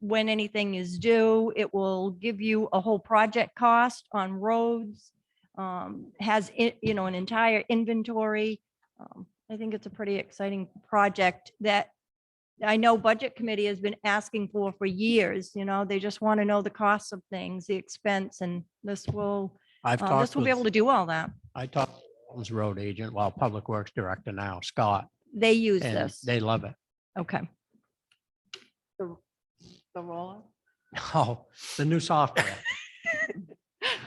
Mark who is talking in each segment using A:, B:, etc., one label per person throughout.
A: when anything is due. It will give you a whole project cost on roads. um, Has, it you know, an entire inventory. Um, I think it's a pretty exciting project that I know Budget Committee has been asking for for years, you know, they just want to know the costs of things, the expense, and this will,
B: I've
A: uh, this
B: talked
A: will be able
B: with,
A: to do all that.
B: I talked to Walton's road agent, well, Public Works Director now, Scott,
A: They use
B: and
A: this.
B: they love it.
A: Okay.
C: the roller?
B: Oh, the new software.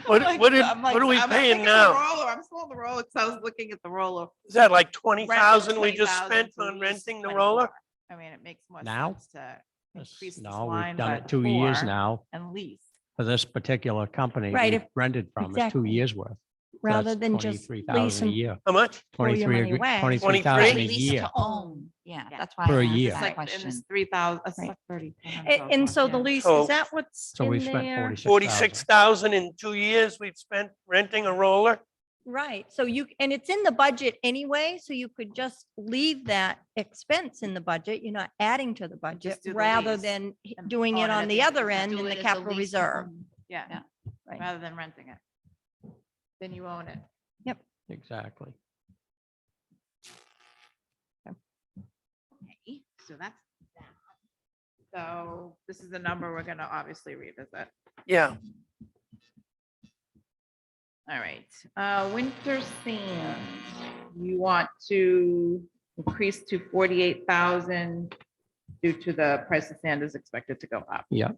D: What-
C: Like,
D: what did-
C: I'm like,
D: what are we
C: I'm like,
D: paying
C: "Look at
D: now?"
C: the roller. I'm still on the roller, because I was looking at the roller.
D: Is that like twenty
C: Rent was
D: thousand we just
C: 20,000,
D: spent
C: so
D: on
C: we used
D: renting the
C: 24.
D: roller?
C: I mean, it makes more
B: Now?
C: sense to increase this
B: No, we've
C: line
B: done
C: by
B: it two years
C: four
B: now
C: and lease.
B: for this particular company.
A: Right,
B: we've
A: if-
B: Rented from us two
A: exactly.
B: years worth.
A: Rather than just
B: three
A: lease
B: thousand a
A: and
B: year,
D: How much?
A: throw your money
B: twenty-three,
A: away.
B: twenty-three thousand a
D: Lease
B: year.
E: own. Yeah,
C: Yeah.
E: that's why. I
B: Per
E: asked
B: year.
C: It's
E: that
C: like, and
E: question.
C: it's three thousand, it's
A: Right.
C: like thirty.
A: A- And so the lease,
D: So-
A: is that what's
B: So we
A: in
B: spent
A: there?
B: forty-six.
D: Forty-six thousand in two years we've spent renting a roller?
A: Right, so you, and it's in the budget anyway, so you could just leave that expense in the budget, you're not adding to the budget,
C: do the
A: rather
C: lease
A: than h-
C: Oh, and
A: doing
C: own
A: it
C: it
A: on
C: at
A: the
C: the end.
A: other
C: Do
A: end in the capital reserve.
C: Yeah,
E: Yeah.
A: Right.
C: rather than renting it. Then you own it.
B: Exactly.
C: So that's. that. So this is the number we're gonna obviously revisit.
D: Yeah,
C: All right, uh, winter sand, you want to increase to forty-eight thousand due to the price of sand is expected to go up.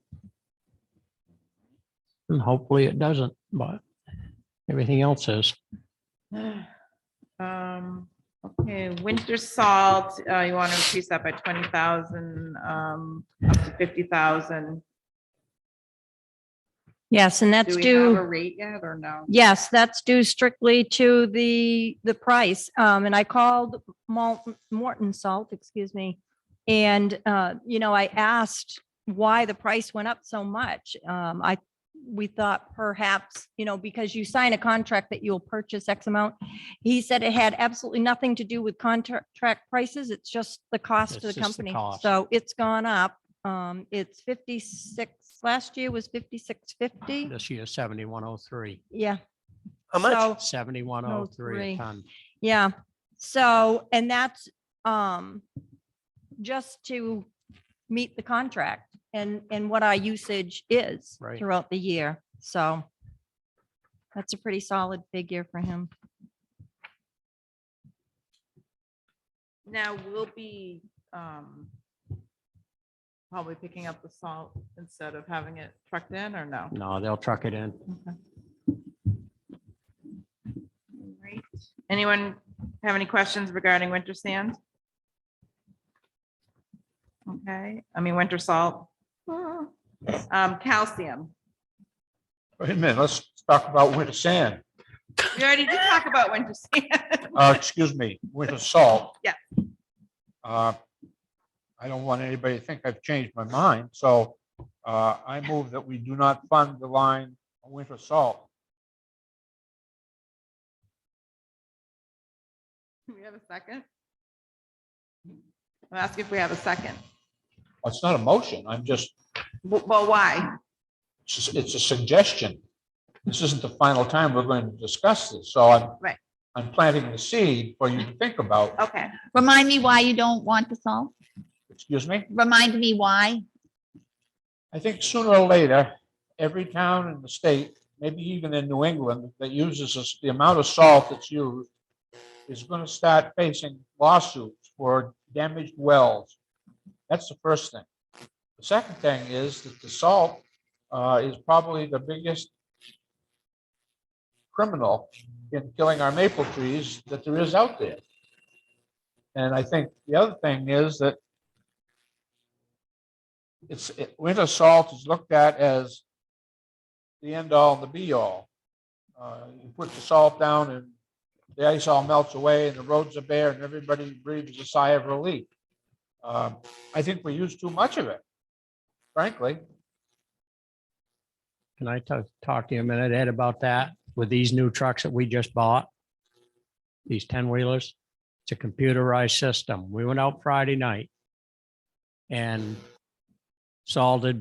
B: And hopefully it doesn't, but everything else is.
C: Um, okay, winter salt, uh, you want to increase that by twenty thousand, um, up to fifty thousand.
A: Yes, and that's
C: Do we have a
A: due,
C: rate yet or no?
A: yes, that's due strictly to the, the price. Um, and I called Malt, Morton Salt, excuse me. And, uh, you know, I asked why the price went up so much. Um, I, we thought perhaps, you know, because you sign a contract that you'll purchase X amount. He said it had absolutely nothing to do with contract prices. It's just the cost
B: It's
A: of
B: just
A: the
B: the
A: company.
B: cost.
A: So it's gone up. Um, it's fifty-six, last year was fifty-six fifty.
B: This year seventy-one oh three,
A: Yeah.
D: how much?
A: So-
B: seventy-one oh three
A: 103.
B: a ton.
A: Yeah, so, and that's, um, just to meet the contract and, and what our usage is
B: Right.
A: throughout the year, so. That's a pretty solid figure for him.
C: Now, we'll be, um, probably picking up the salt instead of having it trucked in or no?
B: No, they'll truck it in.
C: Right. Anyone have any questions regarding winter sand? Okay, I mean, winter salt. Um, calcium.
F: Wait a minute, let's talk about winter sand,
C: We already did talk about winter sand.
F: uh, excuse me, winter salt.
C: Yeah.
F: Uh, I don't want anybody to think I've changed my mind, so, uh, I move that we do not fund the line winter salt.
C: Do We have a second? I'm asking if we have a second.
F: It's not a motion, I'm just,
C: W- Well, why?
F: it's just- it's a suggestion. This isn't the final time we're going to discuss this, so I'm.
C: Right.
F: I'm planting the seed for you to think about,
C: Okay,
E: Remind me why you don't want the salt?
F: excuse me?
E: Remind me why?
F: I think sooner or later, every town in the state, maybe even in New England, that uses this, the amount of salt that's used is going to start facing lawsuits for damaged wells. That's the first thing. The second thing is that the salt uh, is probably the biggest criminal in killing our maple trees that there is out there. And I think the other thing is that it's, it- winter salt is looked at as the end all and the be all. Uh, You put the salt down and the ice all melts away and the roads are bare and everybody breathes a sigh of relief. Um, I think we use too much of it, frankly.
B: Can I talk, talk to you a minute, Ed, about that with these new trucks that we just bought? These ten wheelers, it's a computerized system. We went out Friday night. And salted